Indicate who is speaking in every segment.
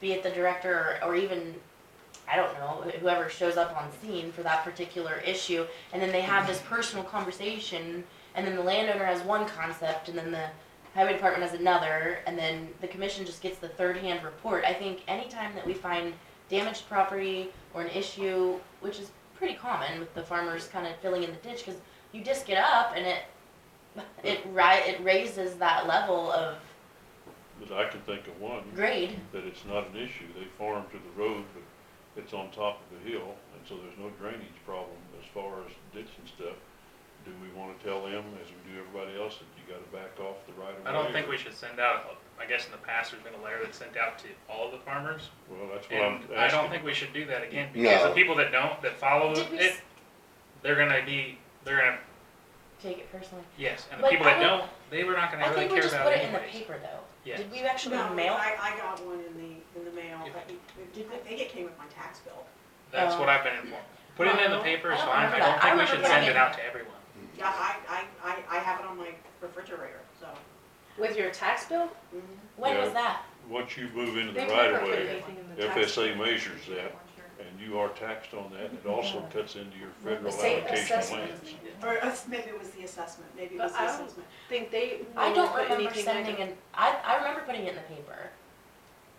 Speaker 1: be it the director or, or even I don't know whoever shows up on scene for that particular issue, and then they have this personal conversation, and then the landowner has one concept, and then the highway department has another, and then the commission just gets the third-hand report. I think anytime that we find damaged property or an issue, which is pretty common with the farmers kind of filling in the ditch, because you disc it up and it it ri- it raises that level of
Speaker 2: But I can think of one,
Speaker 1: grade.
Speaker 2: that it's not an issue, they farm to the road, but it's on top of a hill, and so there's no drainage problem as far as ditch and stuff. Do we wanna tell them, as we do everybody else, that you gotta back off the right of way?
Speaker 3: I don't think we should send out, I guess in the past, there's been a letter that's sent out to all the farmers.
Speaker 2: Well, that's what
Speaker 3: And
Speaker 2: I'm
Speaker 3: I don't
Speaker 2: asking,
Speaker 3: think we should do that again, because the
Speaker 4: No.
Speaker 3: people that don't, that follow
Speaker 1: Did we
Speaker 3: it,
Speaker 1: s-
Speaker 3: they're gonna be, they're gonna,
Speaker 1: take it personally?
Speaker 3: yes, and the
Speaker 1: But
Speaker 3: people
Speaker 1: I
Speaker 3: that
Speaker 1: don't-
Speaker 3: don't, they were not
Speaker 1: I
Speaker 3: gonna really
Speaker 1: think we
Speaker 3: care
Speaker 1: just
Speaker 3: about
Speaker 1: put
Speaker 3: it
Speaker 1: it in the
Speaker 3: anyways.
Speaker 1: paper though.
Speaker 3: Yeah.
Speaker 1: Did we actually
Speaker 5: No,
Speaker 1: mail?
Speaker 5: I, I got one in the, in the mail, but it- it did- I think it came with my tax bill.
Speaker 3: That's
Speaker 1: Oh.
Speaker 3: what I've been informed. Putting it in the
Speaker 1: No,
Speaker 3: paper
Speaker 1: I
Speaker 3: is
Speaker 1: don't
Speaker 3: fine, I
Speaker 1: remember
Speaker 3: don't
Speaker 1: that. I
Speaker 3: think we
Speaker 1: remember
Speaker 3: should send
Speaker 1: putting
Speaker 3: it
Speaker 1: it-
Speaker 3: out to everyone.
Speaker 5: Yeah, I, I, I, I have it on my refrigerator, so.
Speaker 6: With your tax bill?
Speaker 1: When
Speaker 2: Yeah.
Speaker 1: was that?
Speaker 2: once you move into the
Speaker 6: They've
Speaker 2: right
Speaker 6: never
Speaker 2: of
Speaker 6: put
Speaker 2: way,
Speaker 6: anything in the tax
Speaker 2: FSA
Speaker 6: bill.
Speaker 2: measures that, and you are taxed on that, and it also cuts into your federal
Speaker 6: The state
Speaker 2: allocation of
Speaker 6: assessment.
Speaker 2: land.
Speaker 5: Or us- maybe it was the assessment, maybe it was
Speaker 6: But
Speaker 5: the
Speaker 6: I don't-
Speaker 5: assessment.
Speaker 6: Think they.
Speaker 1: I
Speaker 6: never
Speaker 1: don't
Speaker 6: put
Speaker 1: remember
Speaker 6: anything like
Speaker 1: sending
Speaker 6: it.
Speaker 1: an. I I remember putting it in the paper.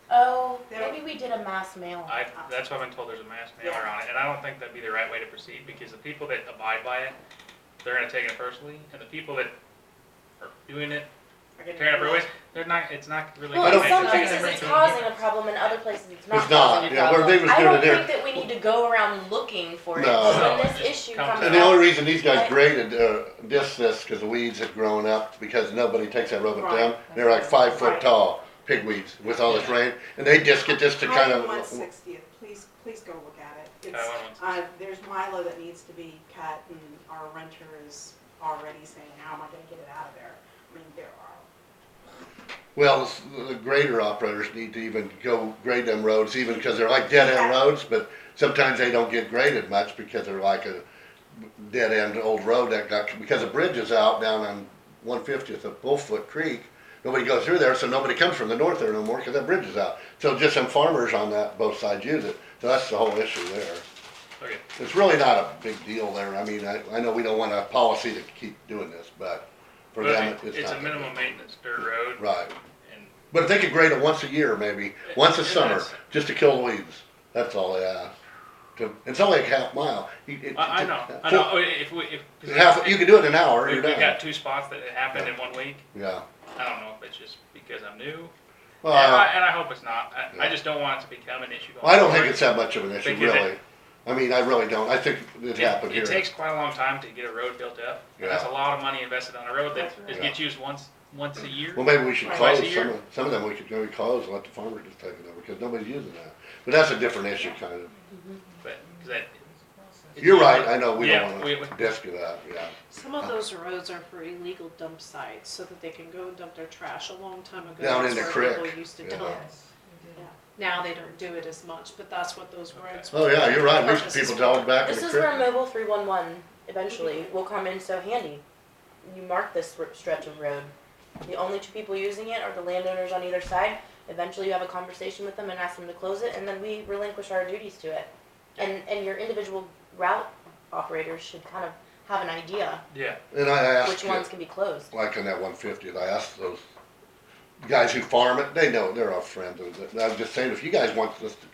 Speaker 1: Oh,
Speaker 5: They don't-
Speaker 1: maybe we did a mass mail.
Speaker 3: I, that's what I've been told, there's a mass mailer on it, and I don't think that'd be the right way to proceed, because the people that abide by it, they're gonna take it personally, and the people that are doing it,
Speaker 5: I get it.
Speaker 3: tearing up roadways, they're not, it's not really.
Speaker 1: Well,
Speaker 3: gonna
Speaker 1: in
Speaker 3: make
Speaker 1: some
Speaker 3: a
Speaker 1: places
Speaker 3: difference
Speaker 1: it's
Speaker 3: in the end.
Speaker 1: causing a problem, in other places it's not
Speaker 4: It's not,
Speaker 1: causing a
Speaker 4: yeah, where
Speaker 1: problem.
Speaker 4: they was
Speaker 1: I
Speaker 4: doing
Speaker 1: don't
Speaker 4: it there.
Speaker 1: think that we need to go around looking for it.
Speaker 4: No.
Speaker 1: So When
Speaker 3: No,
Speaker 1: this
Speaker 3: it just
Speaker 1: issue
Speaker 3: comes
Speaker 1: comes
Speaker 3: out.
Speaker 4: And the only
Speaker 1: up,
Speaker 4: reason these guys
Speaker 1: Right.
Speaker 4: graded, uh, this, this, cause the weeds had grown up, because nobody takes that rubber
Speaker 5: Right.
Speaker 4: down. They're like five foot
Speaker 5: Right.
Speaker 4: tall, pigweeds, with all this rain, and they just get this to kind
Speaker 5: Highway one
Speaker 4: of,
Speaker 5: sixtieth, please, please go look at it.
Speaker 3: Highway
Speaker 5: It's,
Speaker 3: 160.
Speaker 5: uh, there's Milo that needs to be cut and our renter is already saying, how am I gonna get it out of there? I mean, there are,
Speaker 4: well, s- the grader operators need to even go grade them roads, even, cause they're like dead end
Speaker 5: Yeah.
Speaker 4: roads, but sometimes they don't get graded much, because they're like a dead end old road that got, because the bridge is out down on one fiftieth of Bullfoot Creek. Nobody goes through there, so nobody comes from the north there no more, cause that bridge is out. So just some farmers on that, both sides use it, so that's the whole issue there.
Speaker 3: Okay,
Speaker 4: It's really not a big deal there, I mean, I, I know we don't want a policy to keep doing this, but for them,
Speaker 3: but
Speaker 4: it's
Speaker 3: it's
Speaker 4: not.
Speaker 3: a minimum maintenance dirt road,
Speaker 4: Right,
Speaker 3: and
Speaker 4: but if they could grade it once a year, maybe, once a
Speaker 3: Yeah,
Speaker 4: summer,
Speaker 3: that's-
Speaker 4: just to kill the weeds, that's all they ask. To, it's only a half mile. You- it-
Speaker 3: I, I
Speaker 4: it-
Speaker 3: know, I
Speaker 4: so-
Speaker 3: know, oh, if we, if. 'cause
Speaker 4: Half, you can do it in an hour,
Speaker 3: We,
Speaker 4: you're
Speaker 3: we
Speaker 4: done,
Speaker 3: got two spots that it happened in one week,
Speaker 4: yeah.
Speaker 3: I don't know if it's just because I'm new,
Speaker 4: Well,
Speaker 3: and I, and I hope it's not, I, I
Speaker 4: yeah.
Speaker 3: just don't want it to become an issue.
Speaker 4: I don't
Speaker 3: going
Speaker 4: think it's that much of an issue,
Speaker 3: Think you
Speaker 4: really. I mean, I really don't. I think it
Speaker 3: It-
Speaker 4: happened
Speaker 3: It
Speaker 4: here.
Speaker 3: takes quite a long time to get a road built up. and That's a
Speaker 4: Yeah.
Speaker 3: lot of money invested on a road that
Speaker 5: That's
Speaker 3: is
Speaker 4: right.
Speaker 3: gets used once, once a year.
Speaker 4: Well, maybe we should
Speaker 3: Twice
Speaker 4: close
Speaker 3: a year.
Speaker 4: some of, some of them, we could maybe close and let the farmer just take it over, because nobody's using that. But that's a different issue, kind of.
Speaker 3: But, 'cause that. it's
Speaker 4: You're
Speaker 3: used-
Speaker 4: right, I know, we
Speaker 3: Yeah,
Speaker 4: don't
Speaker 3: we-
Speaker 4: wanna
Speaker 3: we-
Speaker 4: disc it up, yeah.
Speaker 6: Some of those roads are for illegal dump sites, so that they can go and dump their trash. A long time ago.
Speaker 4: Down in
Speaker 6: that's
Speaker 4: the
Speaker 6: where
Speaker 4: creek,
Speaker 6: People used to
Speaker 4: yeah.
Speaker 6: dump. Now they don't do it as much, but that's what those roads.
Speaker 4: Oh, yeah, you're right. Most
Speaker 6: Purpose is
Speaker 4: people
Speaker 6: for.
Speaker 4: dog back in
Speaker 1: this
Speaker 4: the
Speaker 1: is where
Speaker 4: creek.
Speaker 1: mobile three one one eventually will come in so handy. You mark this r- stretch of road. The only two people using it are the landowners on either side. Eventually, you have a conversation with them and ask them to close it, and then we relinquish our duties to it. And and your individual route operators should kind of have an idea
Speaker 3: Yeah,
Speaker 4: And I
Speaker 1: which
Speaker 4: asked,
Speaker 1: ones
Speaker 4: you-
Speaker 1: can be closed.
Speaker 4: like on that one fiftieth, I asked those guys who farm it, they know, they're our friends. And I was just saying, if you guys want us to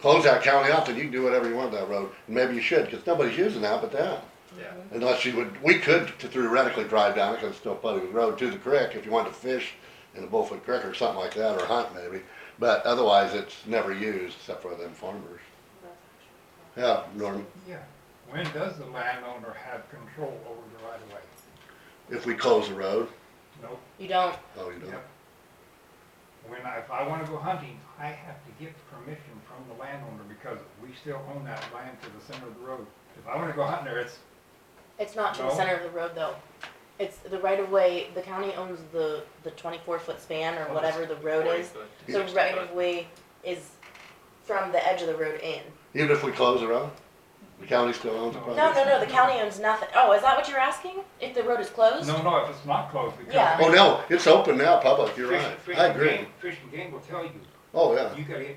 Speaker 4: close that county out, then you can do whatever you want with that road. And maybe you should, because nobody's using that but them.
Speaker 3: yeah.
Speaker 4: Unless you would, we could theoretically drive down it, because it's still public road, to the creek, if you wanted to fish in the Bullfoot Creek or something like that, or hunt maybe. But otherwise, it's never used except for them farmers. Yeah, Norm,
Speaker 7: Yeah, when does the landowner have control over the right of way?
Speaker 4: if we close the road,
Speaker 7: Nope,
Speaker 1: You don't.
Speaker 4: oh, you
Speaker 7: yep.
Speaker 4: don't.
Speaker 7: When I, if I wanna go hunting, I have to get permission from the landowner because we still own that land to the center of the road. If I wanna go hunting there, it's,
Speaker 1: It's not to the
Speaker 7: No?
Speaker 1: center of the road though. It's the right of way. The county owns the the twenty four foot span or
Speaker 7: Oh,
Speaker 1: whatever the road
Speaker 3: Forty
Speaker 1: is.
Speaker 3: foot to
Speaker 1: So
Speaker 3: 60
Speaker 1: right
Speaker 3: foot.
Speaker 1: of way is from the edge of the road in.
Speaker 4: Even if we close the road, the county still owns the
Speaker 7: No.
Speaker 1: No,
Speaker 4: property.
Speaker 1: no, no, the county owns nothing. Oh, is that what you're asking? If the road is closed?
Speaker 7: no, no, if it's not closed, because.
Speaker 1: Yeah.
Speaker 4: Oh, no, it's open now, public, you're
Speaker 7: Fish-
Speaker 4: right.
Speaker 7: Fish
Speaker 4: I
Speaker 7: and
Speaker 4: agree.
Speaker 7: Game- Fish and Game will tell you,
Speaker 4: Oh, yeah.
Speaker 7: you gotta get